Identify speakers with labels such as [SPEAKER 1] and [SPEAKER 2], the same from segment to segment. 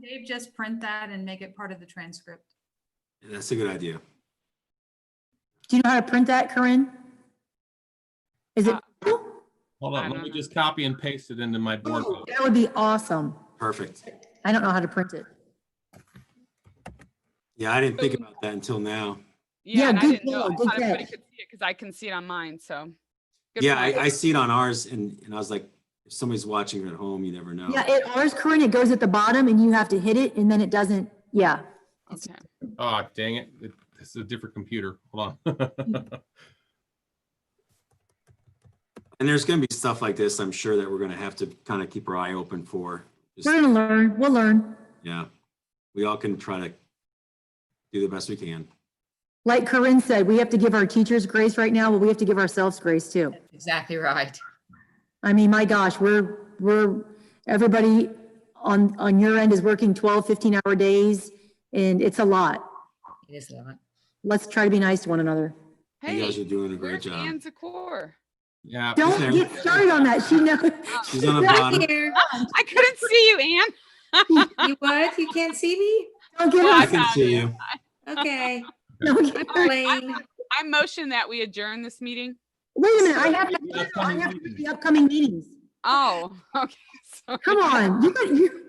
[SPEAKER 1] Dave just print that and make it part of the transcript?
[SPEAKER 2] That's a good idea.
[SPEAKER 3] Do you know how to print that, Corinne? Is it,
[SPEAKER 4] Uh,
[SPEAKER 3] that
[SPEAKER 5] Hold
[SPEAKER 4] I
[SPEAKER 5] on, let
[SPEAKER 4] don't
[SPEAKER 5] me
[SPEAKER 4] know.
[SPEAKER 5] just copy and paste it into my board.
[SPEAKER 2] Oh.
[SPEAKER 5] doc.
[SPEAKER 3] would be awesome.
[SPEAKER 2] Perfect.
[SPEAKER 3] I don't know how to print it.
[SPEAKER 2] Yeah, I didn't think about that until now.
[SPEAKER 3] Yeah,
[SPEAKER 4] Yeah, and I
[SPEAKER 3] good
[SPEAKER 4] didn't know. I
[SPEAKER 3] call, good
[SPEAKER 4] thought everybody
[SPEAKER 3] catch.
[SPEAKER 4] could see it because I can see it on mine, so. good
[SPEAKER 2] Yeah,
[SPEAKER 4] point.
[SPEAKER 2] I, I see it on ours and, and I was like, if somebody's watching at home, you never know.
[SPEAKER 3] Yeah, it, ours, Corinne, it goes at the bottom and you have to hit it and then it doesn't, yeah.
[SPEAKER 4] Okay.
[SPEAKER 5] Oh, dang it. It- This is a different computer. Hold on.
[SPEAKER 2] And there's gonna be stuff like this, I'm sure that we're gonna have to kind of keep our eye open for. Just-
[SPEAKER 3] We're gonna learn, we'll learn.
[SPEAKER 2] Yeah, we all can try to do the best we can.
[SPEAKER 3] Like Corinne said, we have to give our teachers grace right now, but we have to give ourselves grace too.
[SPEAKER 6] Exactly right.
[SPEAKER 3] I mean, my gosh, we're, we're, everybody on, on your end is working 12, 15 hour days and it's a lot.
[SPEAKER 6] It is a lot.
[SPEAKER 3] Let's try to be nice to one another.
[SPEAKER 2] You guys are
[SPEAKER 4] Hey,
[SPEAKER 2] doing a great
[SPEAKER 4] where's
[SPEAKER 2] job.
[SPEAKER 4] Ann Zakor?
[SPEAKER 5] Yeah.
[SPEAKER 3] Don't
[SPEAKER 2] there.
[SPEAKER 3] get started on that. She knows.
[SPEAKER 2] Uh, She's on the bottom.
[SPEAKER 1] Here,
[SPEAKER 4] I couldn't see you, Ann.
[SPEAKER 1] you what? You can't see me?
[SPEAKER 3] Don't get
[SPEAKER 4] Well,
[SPEAKER 2] I
[SPEAKER 3] her,
[SPEAKER 2] can
[SPEAKER 4] found
[SPEAKER 2] see
[SPEAKER 4] it.
[SPEAKER 2] you.
[SPEAKER 1] Okay,
[SPEAKER 3] don't get her-
[SPEAKER 1] Blaine.
[SPEAKER 4] Oh, I motion that we adjourn this meeting.
[SPEAKER 3] Wait a minute, I have,
[SPEAKER 5] The
[SPEAKER 3] to- I
[SPEAKER 5] upcoming
[SPEAKER 3] have to do
[SPEAKER 5] meetings.
[SPEAKER 3] the upcoming meetings.
[SPEAKER 4] Oh, okay. sorry.
[SPEAKER 3] Come on, you, got- you,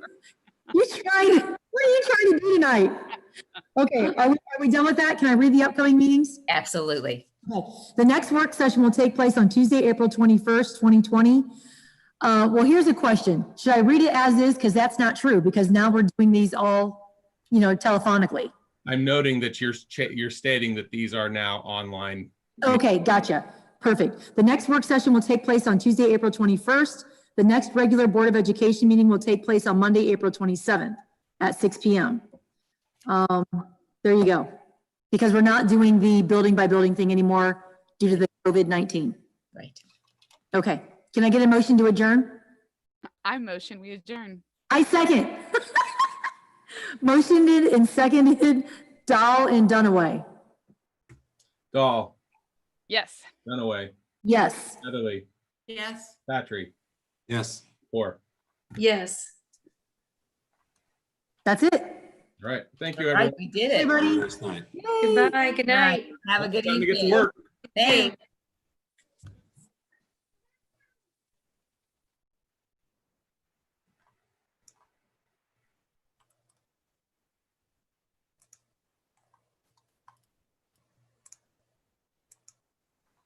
[SPEAKER 3] you trying, what are you trying to do tonight? Okay, are we, are we done with that? Can I read the upcoming meetings?
[SPEAKER 6] Absolutely.
[SPEAKER 3] Okay. The next work session will take place on Tuesday, April 21st, 2020. Uh, well, here's a question. Should I read it as is? Because that's not true, because now we're doing these all, you know, telephonically.
[SPEAKER 5] I'm noting that you're, cha- you're stating that these are now online.
[SPEAKER 3] Okay, gotcha. Perfect. The next work session will take place on Tuesday, April 21st. The next regular Board of Education meeting will take place on Monday, April 27th at 6 PM. Um, there you go. Because we're not doing the building by building thing anymore due to the COVID-19.
[SPEAKER 6] Right.
[SPEAKER 3] Okay, can I get a motion to adjourn?
[SPEAKER 4] I motion we adjourn.
[SPEAKER 3] I second. Motioned and seconded Dahl and Dunaway.
[SPEAKER 5] Dahl,
[SPEAKER 4] Yes.
[SPEAKER 5] Dunaway,
[SPEAKER 3] Yes.
[SPEAKER 5] Heatherly,
[SPEAKER 1] Yes.
[SPEAKER 5] Patrick,
[SPEAKER 2] Yes,
[SPEAKER 5] four.
[SPEAKER 1] Yes.
[SPEAKER 3] That's it.
[SPEAKER 5] All right. Thank you,
[SPEAKER 6] Right,
[SPEAKER 5] everyone.
[SPEAKER 6] we did
[SPEAKER 3] Hey,
[SPEAKER 6] it.
[SPEAKER 3] buddy.
[SPEAKER 2] last night.
[SPEAKER 1] Goodbye, good night.
[SPEAKER 6] Have a good
[SPEAKER 5] Time to get to
[SPEAKER 6] evening.
[SPEAKER 5] work.
[SPEAKER 6] Thanks.